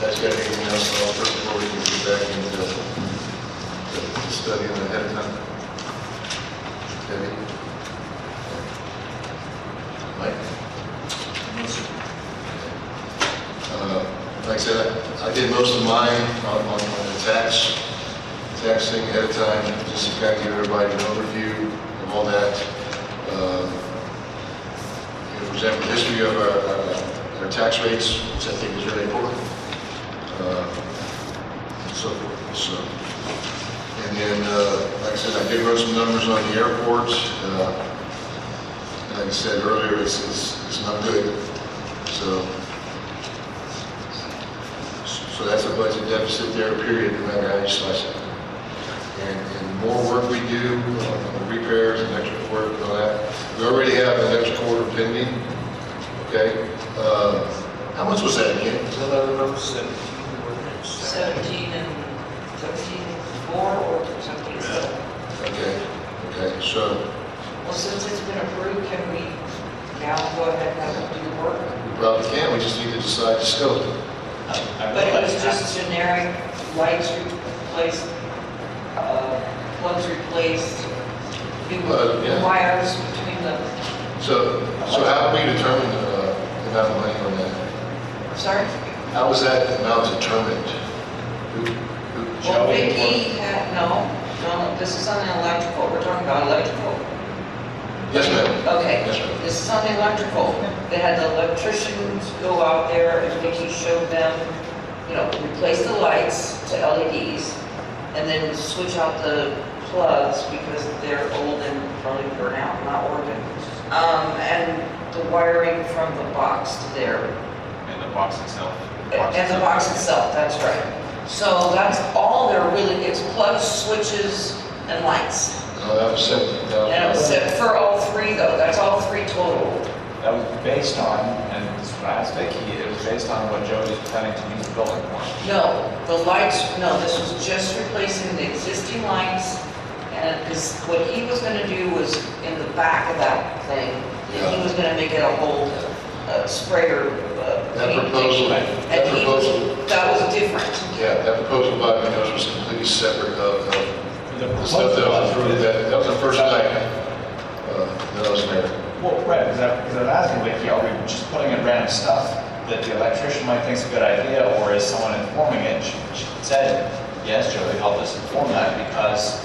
That's got anything else to offer before we can get back into the study on ahead of time? Debbie? Mike? Uh, Like I said, I- I did most of mine on, on on the tax, tax thing ahead of time, just to kind of give everybody an overview of all that. Um, you know, For example, history of our, our- our tax rates, which I think is really important. Uh, So, forth. so, and then, uh, like I said, I did run some numbers on the airports. Uh, Like I said earlier, it's, it's, it's not good, so. So that's a budget deficit there, period, no matter how you slice it. And, and the more work we do on the repairs and extra work and all that, we already have the next quarter pending, okay? Uh, How much was that again? Is that what I remember? Seventeen and thirteen, four or something. So, Okay, okay, so Well, since it's been approved, can we now go ahead and have them do the work? we probably can, we just need to decide the scope. But it was just generic lights replaced, uh, plugs replaced, new Well, yeah. wires between the, So, so how do we determine uh, the amount of money on that? sorry? How was that amount determined? Who- who- Well, Vicky had, no, no, this is on the electrical, we're talking about electrical. Yes, ma'am. Okay, Yes, ma'am. this is on the electrical. They had the electricians go out there and Vicky showed them, you know, replace the lights to LEDs and then switch out the plugs because they're old and probably burnt out, not working. Um, and the wiring from the box to there, And the box itself. and the box itself, that's right. So that's all there really is, plugs, switches, and lights. No, that was seventeen thousand. And it was for all three though, that's all three total. That was based on, and this is what I asked Vicky, it was based on what Joe was planning to use the building for. No, the lights, no, this was just replacing the existing lights, and, because what he was gonna do was in the back of that thing, and he was gonna make it a whole uh, sprayer. uh, That paint proposal, thing. that And he was, proposal, that was different. yeah, that proposal by Munoz was completely separate of, of The the stuff that was approved, that, that was the first night, uh, that I was there. Well, right, because I, because I was asking Vicky, are we just putting in random stuff that the electrician might think's a good idea, or is someone informing it? She she said, yes, Joe helped us inform that because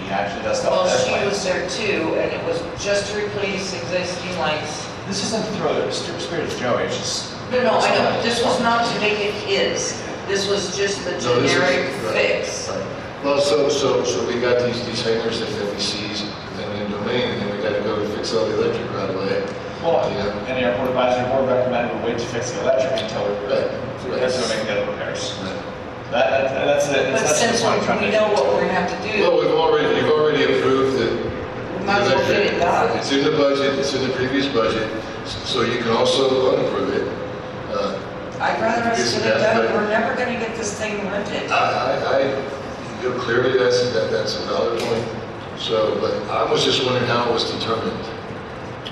he actually does stuff Well, that she way. was there too, and it was just to replace existing lights. This isn't to throw the stir- spirit of Joey, it's just. No, no, I know, this was not to make it his, this was just the So this is- generic right, fix. right. Well, so, so, so we got these, these hangers that that we seize, then in domain, and then we gotta go and fix all the electric right away. Well, Yeah. and the airport advisory board recommended we wait to fix the electric until we, Right, right. that's what make the repairs. Right. That, that- that's it. But since we we know what we're gonna have to do. Well, we've already, you've already approved the We Might as well get it done. It's in the budget, it's in the previous budget, so you can also unapprove it. Uh, I'd rather us get it done, we're never gonna get this thing rented. I, I, I- you know, clearly that's, that, that's a valid point, so, but I was just wondering how it was determined.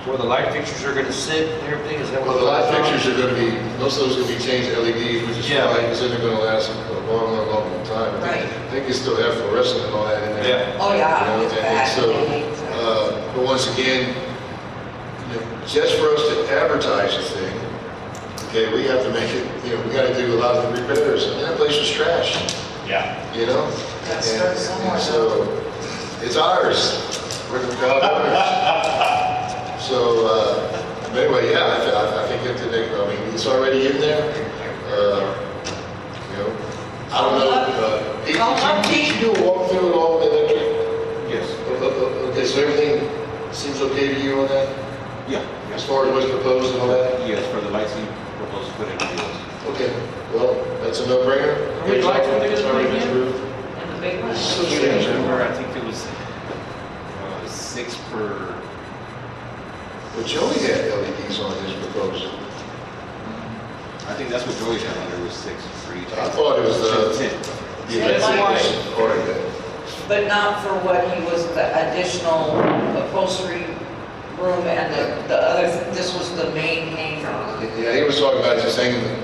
Where the light fixtures are gonna sit and everything, is that what? Well, the light fixtures are gonna be, most of those are gonna be changed to LEDs, which is Yeah. fine, because then they're gonna last a long, long, long time. I think- Right. I think you still have fluorescent and all that in there. Yeah. Oh, yeah, You know, it's and- and bad. so, uh, but once again, you know, just for us to advertise the thing, okay, we have to make it, you know, we gotta do a lot of the repairs, and that place was trash, Yeah. you know? Gotta And- start somewhere. and So, it's ours, we're the proud owners. So, uh, but anyway, yeah, I, th- I- I think it's, I mean, it's already in there, uh, you know, I don't know, uh, did you- did you do a walkthrough at all, electric? Yes. O- o- o- Okay, so everything seems okay to you on that, Yeah. as far as what's proposed and all that? Yes, for the lights you propose to put in, yes. Okay, well, that's a no-brainer. How many lights were they gonna It's already put in? approved. And the big one? So I strange. remember, I think it was, uh, six per, But Joey had LEDs on his proposal. I think that's what Joey had, on there was six for each. I thought it was, uh, Ten. the Yeah, it's electric part of it. But not for what he was, the additional upholstery room and the, the other, this was the main hangar. Yeah, he was talking about just hanging